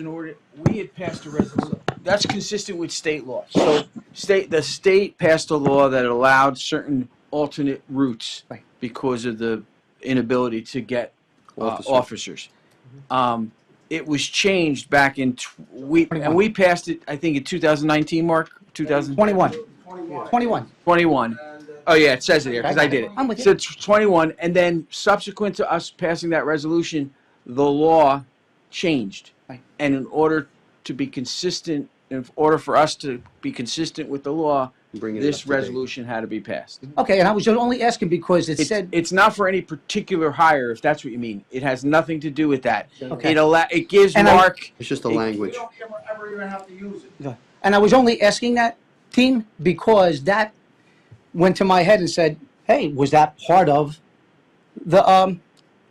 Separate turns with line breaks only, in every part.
in order, we had passed a resolution. That's consistent with state law. So state, the state passed a law that allowed certain alternate routes
Right.
because of the inability to get uh,
Officers.
officers. Um, It was changed back in, tw- we, and we passed it, I think, in 2019, Mark, 2021.
21, 21.
Oh, yeah, it says it here, because I did it.
I'm with you.
So it's 21, and then subsequent to us passing that resolution, the law changed.
Right.
And in order to be consistent, in order for us to be consistent with the law,
Bring it up
this
to date.
resolution had to be passed.
Okay, and I was only asking because it
It's,
Mhm. said,
it's not for any particular hire, if that's what you mean. It has nothing to do with that.
okay.
It allow, it gives
And I-
Mark,
It's just the
It-
language.
ever, ever even have to use it.
And I was only asking that team because that went to my head and said, "Hey, was that part of the um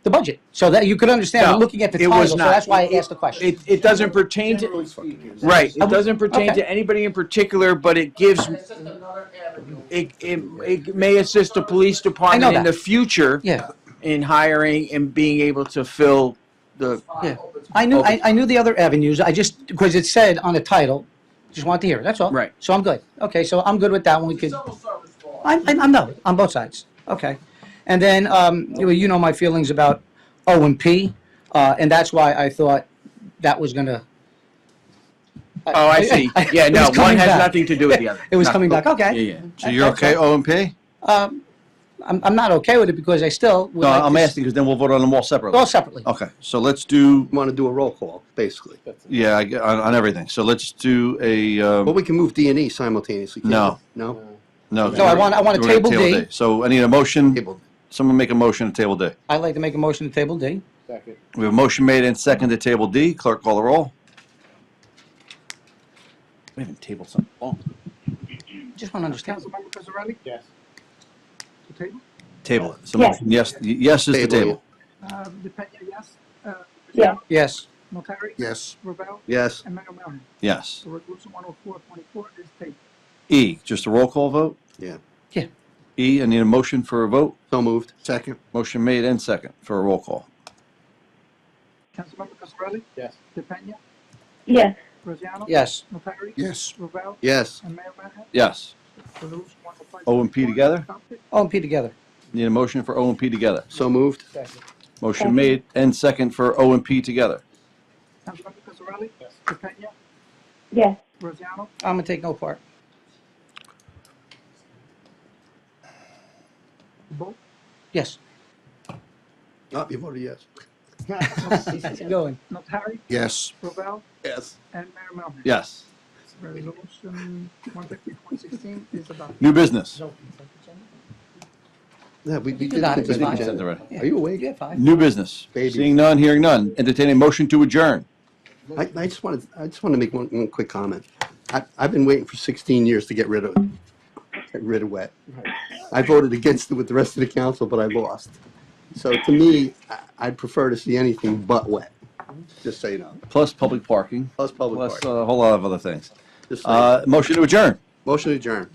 the budget?" So that you could understand
No,
looking at the
it
title.
was
So
not.
that's why I asked the question.
it, it doesn't pertain to,
Generally speaking.
right, it
Okay.
doesn't pertain to anybody in particular, but it gives
It's just another avenue.
it, it, it may assist the police department in
that.
the future
yeah,
in hiring and being able to fill the,
yeah. I knew I, I knew the other avenues. I just because it said on the title, just wanted to hear. it. That's all.
Right.
So I'm good. Okay, so I'm good with that one. We could.
Civil service law.
I'm, I'm, I'm no, on both sides. Okay. And then, um, you know- you know my feelings about O and P, uh, and that's why I thought that was gonna.
oh, I see. Yeah,
It
no,
was
one
coming
has
back.
nothing to do with the other.
It was
No.
coming back,
Yeah,
okay.
yeah.
So you're
That's
okay, O and P?
Um, I'm, I'm not okay with it because I still would
No,
like
I'm
to s-
asking because then we'll vote on them all separately.
All separately.
Okay, so let's do,
Want to do a roll call, basically.
yeah, I get- on, on everything. So let's do a,
But
um,
we can move D and E simultaneously. can't
No.
we? No?
no.
So I want- I want to
we're gonna
table D.
So I need a motion,
Table.
someone make a motion to table D.
I'd like to make a motion to table D.
We have a motion made and second to table D. Clerk call the roll. We haven't tabled Oh. something.
Just want to understand.
Yes.
Table it. So motion, yes, yes is the
E.
Table,
table.
Um, DePena, yes. Uh,
Yes.
Notary,
Yes.
Ravel,
Yes.
and Mayor Melham.
Yes.
So resolution one oh four point four is tabled.
E, just a roll call vote?
Yeah.
Yeah.
E, I need a motion for a vote.
So moved. Second.
Motion made and second for a roll call.
Councilmember Cosarelli?
Yes.
DePena,
yes,
Braziano?
Yes.
Notary?
Yes.
Ravel,
Yes.
and Mayor Melham.
Yes.
Resolution one oh five.
O and P together?
O and P together.
Need a motion for O and P together.
So moved.
Motion
Second.
made and second for O and P together.
Councilmember Cosarelli? Yes. DePena,
yes,
Braziano,
I'm gonna take no part.
Bo,
Yes.
Oh, you voted yes.
Going.
Notary,
Yes.
Ravel,
Yes.
and Mayor Melham.
Yes.
Resolution one fifty point sixteen is adopted.
New business.
Yeah, we, we
You
did
got it.
consent
It's fine.
agenda.
Already.
Are you awake?
Yeah, fine.
New business.
Baby.
Seeing none, hearing none. Entertain a motion to adjourn.
I, I just wanted, I just want to make one, one quick comment. I, I've been waiting for 16 years to get rid of, get rid of wet. I voted against it with the rest of the council, but I lost. So to me, I, I'd prefer to see anything but wet, just so you know.
Plus public parking.
Plus public
Plus
park,
a whole lot of other things.
just so you know.
Uh, motion to adjourn.
Motion adjourned.